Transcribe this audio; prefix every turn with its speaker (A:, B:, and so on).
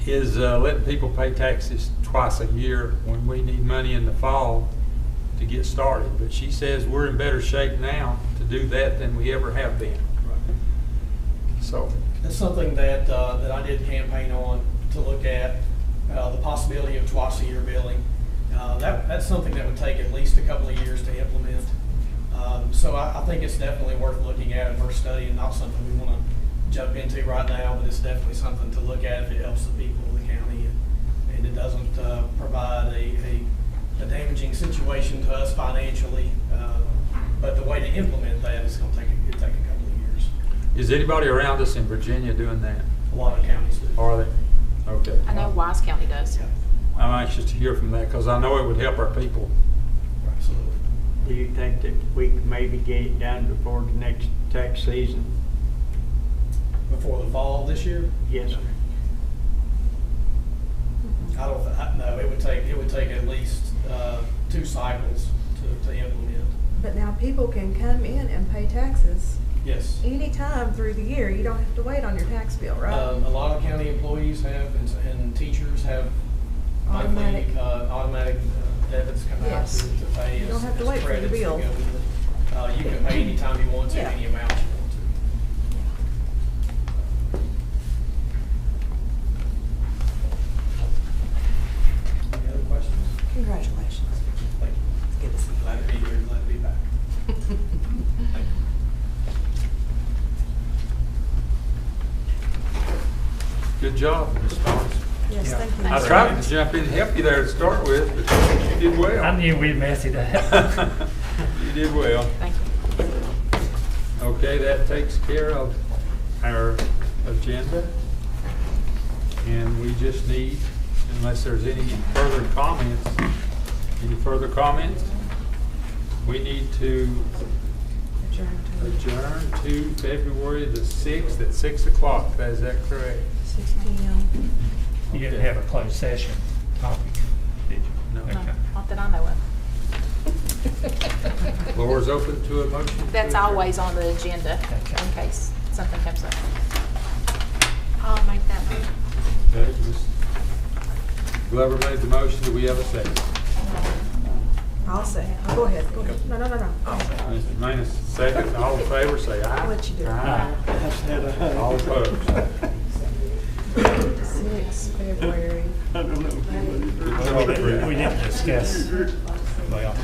A: is uh, letting people pay taxes twice a year when we need money in the fall to get started. But she says we're in better shape now to do that than we ever have been. So,
B: That's something that, uh, that I did campaign on to look at, uh, the possibility of twice a year billing. Uh, that, that's something that would take at least a couple of years to implement. Um, so I, I think it's definitely worth looking at and worth studying, not something we wanna jump into right now, but it's definitely something to look at if it helps the people of the county and, and it doesn't, uh, provide a, a, a damaging situation to us financially. Uh, But the way to implement that is gonna take, it'd take a couple of years.
A: is anybody around us in Virginia doing that?
B: A lot of counties do.
A: Are they? Okay.
C: I know Wise County does.
B: Yeah,
A: I'm anxious to hear from that because I know it would help our people.
B: absolutely.
D: Do you think that we could maybe get it done before the next tax season?
B: Before the fall this year?
D: Yes, sir.
B: I don't, thi- I- no, it would take, it would take at least uh, two cycles to to implement.
E: But now people can come in and pay taxes
B: Yes.
E: anytime through the year. You don't have to wait on your tax bill,
B: Um, A
E: right?
B: lot of county employees have, and s- and teachers have monthly
E: Automatic.
B: uh, automatic uh, debits come out
E: Yes.
B: to to pay
E: You don't
B: as
E: have to
B: as
E: wait for your
B: credits that
E: bill.
B: go with it. Uh, You can pay anytime you want to,
E: Yeah.
B: any amount you want to. Any other questions?
E: Congratulations.
B: Thank you.
E: It's good to see
B: Glad to be here, glad to be back. Thank you.
A: Good job, Ms. Thomas.
E: Yes,
F: Yeah.
E: thank you.
A: I tried to jump in and help you there to start with, but you did well.
F: I knew we'd mess it up.
A: You did well.
C: Thank you.
A: Okay, that takes care of our agenda. And we just need, unless there's any further comments, any further comments? We need to
E: Adjourned to
A: adjourn to February the 6th at 6 o'clock. Is that correct?
E: six P M.
F: You didn't have a closed session topic, did you?
A: No.
C: No,
F: Okay.
C: Not that I know of.
A: Floor is open to a motion. to
C: That's
A: adjourn.
C: always on the agenda
F: Okay.
C: in case something comes up.
G: I'll make that motion.
A: Okay, Ms. Glover made the motion. Do we have a second?
E: I'll say, oh, go ahead, go ahead. No, no, no, no. I'll say.
A: Mr. Manus, second. All in favor, say aye.
E: I'll let you do it.
A: Aye. All opposed.
E: Six February.
D: I don't know.
F: We didn't discuss, well.